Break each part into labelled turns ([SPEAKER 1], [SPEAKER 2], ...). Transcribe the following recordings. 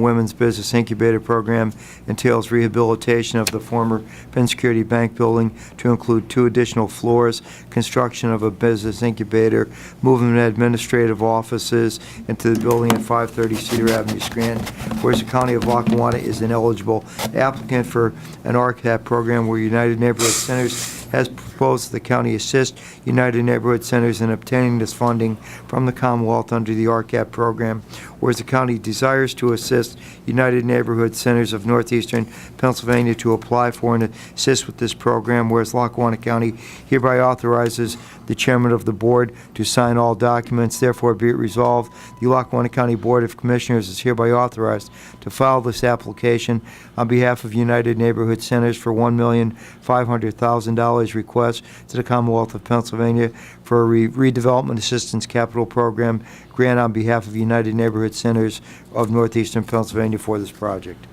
[SPEAKER 1] Women's Business Incubator Program entails rehabilitation of the former Penn Security Bank building to include two additional floors, construction of a business incubator, movement of administrative offices into the building at 530 Cedar Avenue, Scranton. Whereas the County of Lackawanna is an eligible applicant for an RCAP program where United Neighborhood Centers has proposed the county assist United Neighborhood Centers in obtaining this funding from the Commonwealth under the RCAP program, whereas the county desires to assist United Neighborhood Centers of Northeastern Pennsylvania to apply for and assist with this program, whereas Lackawanna County hereby authorizes the chairman of the board to sign all documents, therefore be it resolved, the Lackawanna County Board of Commissioners is hereby authorized to file this application on behalf of United Neighborhood Centers for $1,500,000 request to the Commonwealth of Pennsylvania for a re- redevelopment assistance capital program grant on behalf of United Neighborhood Centers of Northeastern Pennsylvania for this project.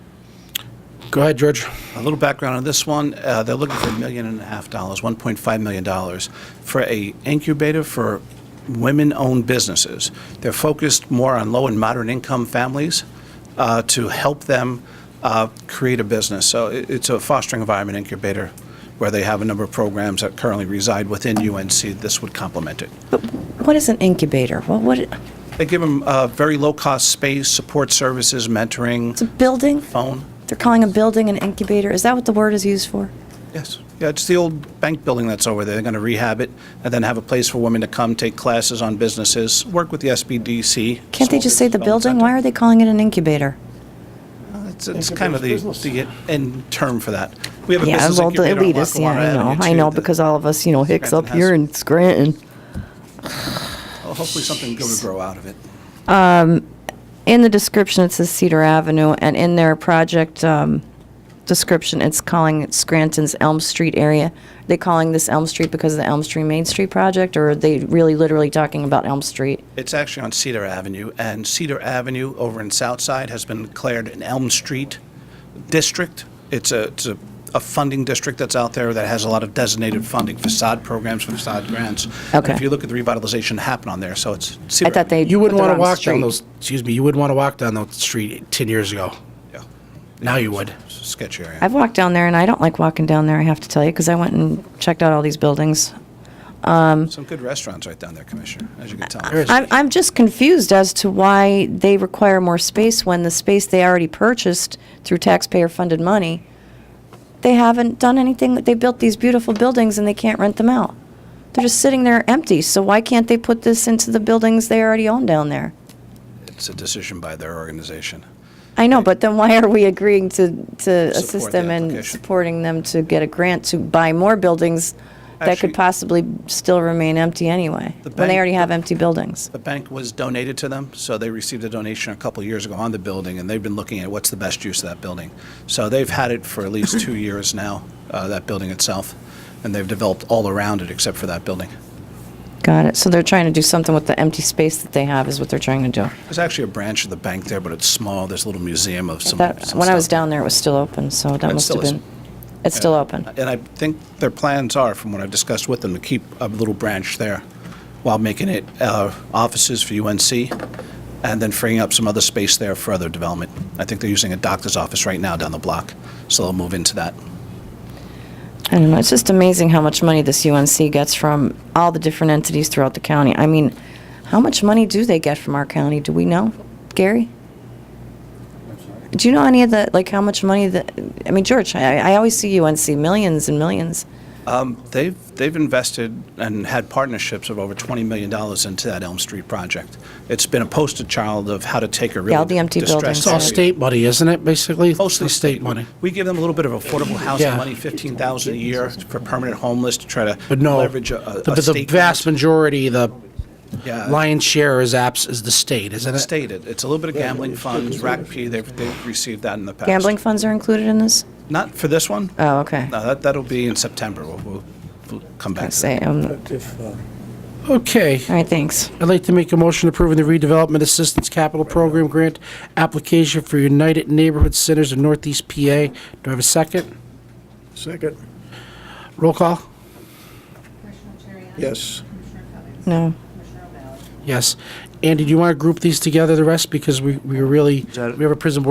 [SPEAKER 2] Go ahead, George.
[SPEAKER 3] A little background on this one, uh, they're looking for a million and a half dollars, $1.5 million, for a incubator for women-owned businesses. They're focused more on low and moderate income families uh, to help them uh, create a business. So it- it's a fostering environment incubator where they have a number of programs that currently reside within UNC. This would complement it.
[SPEAKER 4] What is an incubator? What, what, it's
[SPEAKER 3] They give them very low-cost space, support services, mentoring,
[SPEAKER 4] a building?
[SPEAKER 3] phone.
[SPEAKER 4] They're calling a building an incubator. Is that what the word is used for?
[SPEAKER 3] Yes. Yeah, it's the old bank building that's over there. They're going to rehab it and then have a place for women to come, take classes on businesses, work with the SBDC.
[SPEAKER 4] Can't they
[SPEAKER 3] Small
[SPEAKER 4] just say the
[SPEAKER 3] Business
[SPEAKER 4] building?
[SPEAKER 3] Development
[SPEAKER 4] Why are they calling it an incubator?
[SPEAKER 3] Center. It's, it's kind of the, the end term for that. We have a
[SPEAKER 4] Yeah,
[SPEAKER 3] business
[SPEAKER 4] well, the
[SPEAKER 3] incubator on
[SPEAKER 4] elitist, yeah,
[SPEAKER 3] Lackawanna
[SPEAKER 4] I know,
[SPEAKER 3] Avenue,
[SPEAKER 4] I
[SPEAKER 3] too,
[SPEAKER 4] know,
[SPEAKER 3] that-
[SPEAKER 4] because all of us, you know, hicks
[SPEAKER 3] Scranton
[SPEAKER 4] up
[SPEAKER 3] has-
[SPEAKER 4] here in Scranton.
[SPEAKER 3] well, Hopefully something good will grow out of it.
[SPEAKER 4] In the description, it says Cedar Avenue, and in their project um, description, it's calling it Scranton's Elm Street area. Are they calling this Elm Street because of the Elm Street Main Street project, or are they really literally talking about Elm Street?
[SPEAKER 3] It's actually on Cedar Avenue, and Cedar Avenue over in Southside has been declared an Elm Street district. It's a, it's a, a funding district that's out there that has a lot of designated funding, facade programs, facade grants. And
[SPEAKER 4] Okay.
[SPEAKER 3] If you look at the revitalization happen on there, so it's
[SPEAKER 4] I
[SPEAKER 3] Cedar
[SPEAKER 4] thought
[SPEAKER 3] Avenue.
[SPEAKER 4] they
[SPEAKER 2] You wouldn't
[SPEAKER 4] put
[SPEAKER 2] want
[SPEAKER 4] the
[SPEAKER 2] to
[SPEAKER 4] wrong
[SPEAKER 2] walk
[SPEAKER 4] street.
[SPEAKER 2] down those, excuse me, you wouldn't want to walk down that street 10 years ago.
[SPEAKER 3] Yeah.
[SPEAKER 2] Now you would.
[SPEAKER 3] It's a Sketchy area.
[SPEAKER 4] I've walked down there, and I don't like walking down there, I have to tell you, because I went and checked out all these buildings.
[SPEAKER 3] Some good restaurants right down there, Commissioner, as you can tell.
[SPEAKER 2] There is-
[SPEAKER 4] I'm, I'm just confused as to why they require more space when the space they already purchased through taxpayer-funded money, they haven't done anything, they built these beautiful buildings and they can't rent them out. They're just sitting there empty, so why can't they put this into the buildings they already own down there?
[SPEAKER 3] It's a decision by their organization.
[SPEAKER 4] I know, but then why are we agreeing to, to assist
[SPEAKER 3] Support
[SPEAKER 4] them
[SPEAKER 3] the
[SPEAKER 4] and
[SPEAKER 3] application.
[SPEAKER 4] supporting them to get a grant to buy more buildings that
[SPEAKER 3] Actually-
[SPEAKER 4] could possibly still remain empty anyway,
[SPEAKER 3] The
[SPEAKER 4] when they
[SPEAKER 3] bank-
[SPEAKER 4] already have empty buildings?
[SPEAKER 3] The bank was donated to them, so they received a donation a couple years ago on the building, and they've been looking at what's the best use of that building. So they've had it for at least two years now, uh, that building itself, and they've developed all around it except for that building.
[SPEAKER 4] Got it. So they're trying to do something with the empty space that they have is what they're trying to do.
[SPEAKER 3] There's actually a branch of the bank there, but it's small. There's a little museum of some.
[SPEAKER 4] That,
[SPEAKER 3] some
[SPEAKER 4] when I was
[SPEAKER 3] stuff.
[SPEAKER 4] down there, it was still open, so that
[SPEAKER 3] It
[SPEAKER 4] must
[SPEAKER 3] still
[SPEAKER 4] have
[SPEAKER 3] is.
[SPEAKER 4] been, it's still open.
[SPEAKER 3] And I think their plans are, from what I've discussed with them, to keep a little branch there while making it uh, offices for UNC and then freeing up some other space there for other development. I think they're using a doctor's office right now down the block, so they'll move into that.
[SPEAKER 4] I don't know. It's just amazing how much money this UNC gets from all the different entities throughout the county. I mean, how much money do they get from our county? Do we know, Gary? Do you know any of the, like, how much money that, I mean, George, I, I always see UNC, millions and millions.
[SPEAKER 3] They've, they've invested and had partnerships of over $20 million into that Elm Street project. It's been a poster child of how to take a really
[SPEAKER 4] all the empty
[SPEAKER 3] distressed
[SPEAKER 4] buildings,
[SPEAKER 2] It's all
[SPEAKER 4] Sorry.
[SPEAKER 3] area.
[SPEAKER 2] state money, isn't it, basically?
[SPEAKER 3] Mostly
[SPEAKER 2] It's state money.
[SPEAKER 3] We give them a little bit of affordable housing
[SPEAKER 2] Yeah.
[SPEAKER 3] money, 15,000 a year for permanent homeless to try to
[SPEAKER 2] But no,
[SPEAKER 3] leverage a- a
[SPEAKER 2] the
[SPEAKER 3] a
[SPEAKER 2] the
[SPEAKER 3] state Uh,
[SPEAKER 2] vast
[SPEAKER 3] grant.
[SPEAKER 2] majority, the
[SPEAKER 3] Yeah.
[SPEAKER 2] lion's share is apps, is the state, isn't it?
[SPEAKER 3] stated. It's a little bit of gambling funds, RACP, they've, they've received that in the past.
[SPEAKER 4] Gambling funds are included in this?
[SPEAKER 3] Not for this one.
[SPEAKER 4] Oh, okay.
[SPEAKER 3] No, that, that'll be in September. We'll, we'll- we'll come back to
[SPEAKER 4] Say,
[SPEAKER 3] that.
[SPEAKER 4] um, all
[SPEAKER 5] uh,
[SPEAKER 2] Okay.
[SPEAKER 4] right, thanks.
[SPEAKER 2] I'd like to make a motion approving the redevelopment assistance capital program grant application for United Neighborhood Centers of Northeast PA. Do I have a second?
[SPEAKER 5] Second.
[SPEAKER 2] Roll call?
[SPEAKER 5] Yes.
[SPEAKER 4] No.
[SPEAKER 2] Yes. Andy, do you want to group these together, the rest, because we, we really,
[SPEAKER 1] that-
[SPEAKER 2] we have a prison board